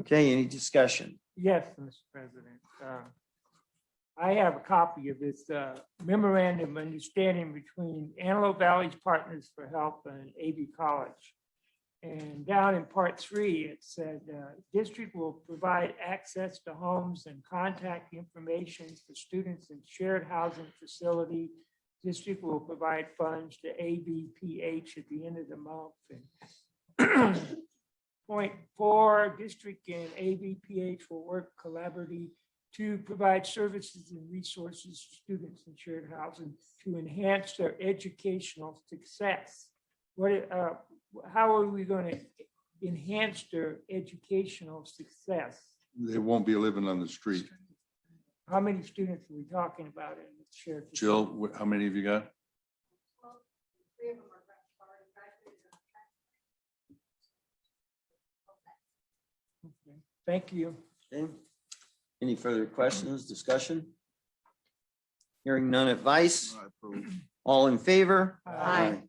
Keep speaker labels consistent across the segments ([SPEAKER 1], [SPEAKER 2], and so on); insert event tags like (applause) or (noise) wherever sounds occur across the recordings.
[SPEAKER 1] Okay, any discussion?
[SPEAKER 2] Yes, Mr. President. Uh, I have a copy of this uh, memorandum of understanding between Antelope Valley's Partners for Health and AV College. And down in part three, it said, uh, district will provide access to homes and contact information for students in shared housing facility. District will provide funds to ABPH at the end of the month. And (clears throat) Point four, district and ABPH will work collaboratively to provide services and resources to students in shared housing to enhance their educational success. What, uh, how are we going to enhance their educational success?
[SPEAKER 3] They won't be living on the street.
[SPEAKER 2] How many students are we talking about in the shared?
[SPEAKER 3] Jill, wh- how many have you got?
[SPEAKER 2] Okay, Thank you.
[SPEAKER 1] Okay. Any further questions, discussion? Hearing none advice, all in favor?
[SPEAKER 2] Aye.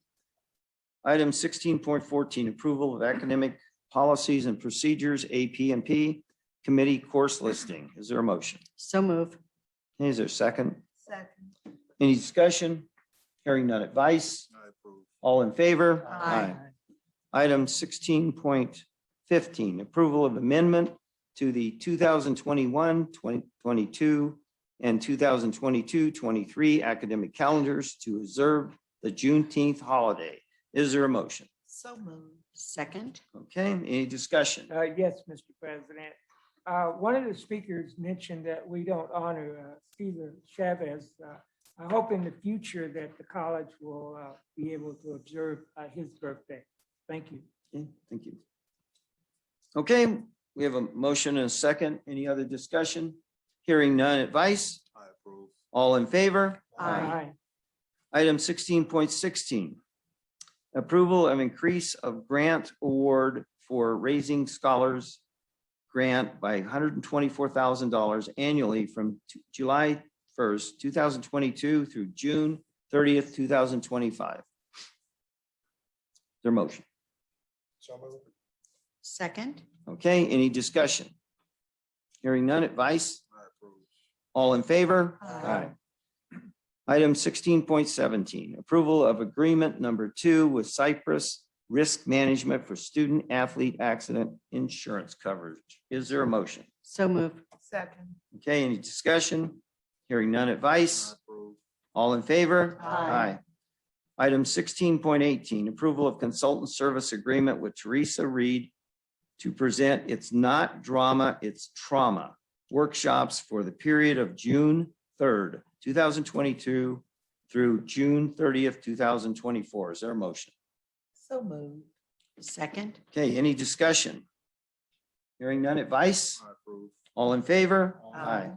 [SPEAKER 1] Item sixteen point fourteen, approval of academic policies and procedures, AP and P, committee course listing. Is there a motion?
[SPEAKER 4] So move.
[SPEAKER 1] Is there a second?
[SPEAKER 4] Second.
[SPEAKER 1] Any discussion? Hearing none advice, all in favor?
[SPEAKER 4] Aye.
[SPEAKER 1] Item sixteen point fifteen, approval of amendment to the 2021-2022, and 2022-23 academic calendars to observe the Juneteenth holiday. Is there a motion?
[SPEAKER 4] So move. Second.
[SPEAKER 1] Okay, any discussion?
[SPEAKER 2] Uh, yes, Mr. President. Uh, one of the speakers mentioned that we don't honor, uh, Cesar Chavez. Uh, I hope in the future that the college will, uh, be able to observe, uh, his birthday. Thank you.
[SPEAKER 1] Okay, Thank you. Okay, we have a motion and a second. Any other discussion? Hearing none advice? All in favor?
[SPEAKER 4] Aye.
[SPEAKER 1] Item sixteen point sixteen. Approval of increase of grant award for Raising Scholars grant by hundred and twenty-four thousand dollars annually from t- July first, two thousand twenty-two through June thirtieth, two thousand twenty-five. Their motion.
[SPEAKER 4] Second.
[SPEAKER 1] Okay, any discussion? Hearing none advice? All in favor?
[SPEAKER 4] Aye.
[SPEAKER 1] Item sixteen point seventeen, approval of agreement number two with Cypress Risk Management for Student Athlete Accident Insurance Coverage. Is there a motion?
[SPEAKER 4] So move.
[SPEAKER 5] Second.
[SPEAKER 1] Okay, any discussion? Hearing none advice? All in favor?
[SPEAKER 4] Aye.
[SPEAKER 1] Item sixteen point eighteen, approval of consultant service agreement with Teresa Reed to present It's Not Drama, It's Trauma workshops for the period of June third, two thousand twenty-two through June thirtieth, two thousand twenty-four. Is there a motion?
[SPEAKER 5] So moved.
[SPEAKER 4] Second.
[SPEAKER 1] Okay, any discussion? Hearing none advice? All in favor?
[SPEAKER 5] Aye.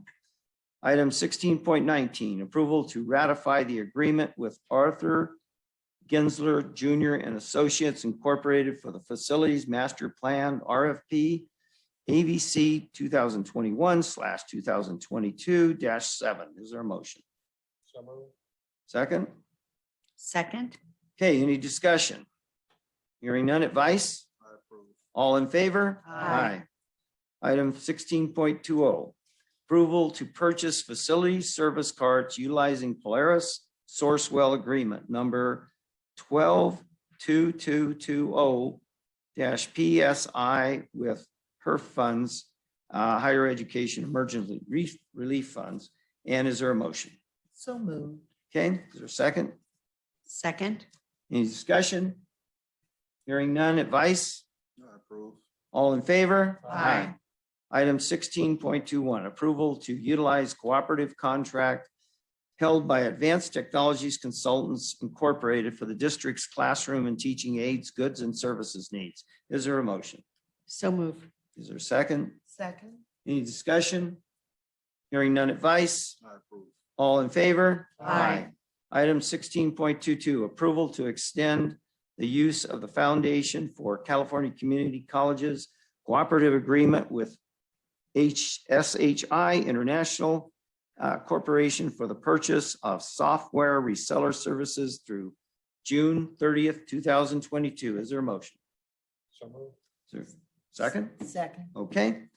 [SPEAKER 1] Item sixteen point nineteen, approval to ratify the agreement with Arthur Gensler Junior and Associates Incorporated for the Facilities Master Plan RFP AVC two thousand twenty-one slash two thousand twenty-two seven. Is there a motion? Second?
[SPEAKER 4] Second.
[SPEAKER 1] Okay, any discussion? Hearing none advice? All in favor?
[SPEAKER 4] Aye.
[SPEAKER 1] Item sixteen point two oh, approval to purchase facility service cards utilizing Polaris Sourcewell Agreement Number twelve two two two oh PSI with HERF funds, uh, Higher Education Emergency Re- Relief Funds. And is there a motion?
[SPEAKER 5] So moved.
[SPEAKER 1] Okay, is there a second?
[SPEAKER 4] Second.
[SPEAKER 1] Any discussion? Hearing none, advice? All in favor?
[SPEAKER 4] Aye.
[SPEAKER 1] Item sixteen point two one, approval to utilize cooperative contract held by Advanced Technologies Consultants Incorporated for the district's classroom and teaching aids, goods and services needs. Is there a motion?
[SPEAKER 4] So move.
[SPEAKER 1] Is there a second?
[SPEAKER 5] Second.
[SPEAKER 1] Any discussion? Hearing none, advice? All in favor?
[SPEAKER 4] Aye.
[SPEAKER 1] Item sixteen point two two, approval to extend the use of the Foundation for California Community Colleges Cooperative Agreement with HSHI International uh, Corporation for the purchase of software reseller services through June thirtieth, two thousand twenty-two. Is there a motion? Is there a Second?
[SPEAKER 5] Second.
[SPEAKER 1] Okay.